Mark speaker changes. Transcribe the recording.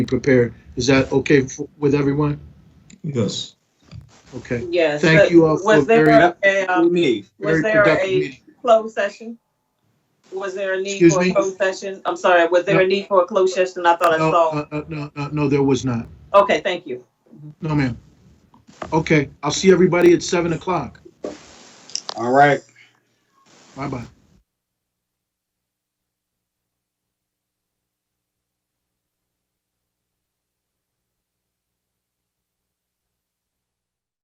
Speaker 1: be prepared. Is that okay f- with everyone?
Speaker 2: Yes.
Speaker 1: Okay.
Speaker 3: Yes.
Speaker 1: Thank
Speaker 3: but
Speaker 1: you all for
Speaker 3: Was there
Speaker 1: very-
Speaker 3: a, um,
Speaker 4: me.
Speaker 1: Very
Speaker 3: was there
Speaker 1: productive
Speaker 3: a
Speaker 1: meeting.
Speaker 3: closed session? Was there a need
Speaker 1: Excuse
Speaker 3: for a
Speaker 1: me?
Speaker 3: closed session? I'm sorry, was there
Speaker 1: No.
Speaker 3: a need for a closed session? I thought I
Speaker 1: No,
Speaker 3: saw.
Speaker 1: uh, uh, no, uh, no, there was not.
Speaker 3: Okay, thank you.
Speaker 1: No, ma'am. Okay, I'll see everybody at seven o'clock.
Speaker 4: All right.
Speaker 1: Bye-bye.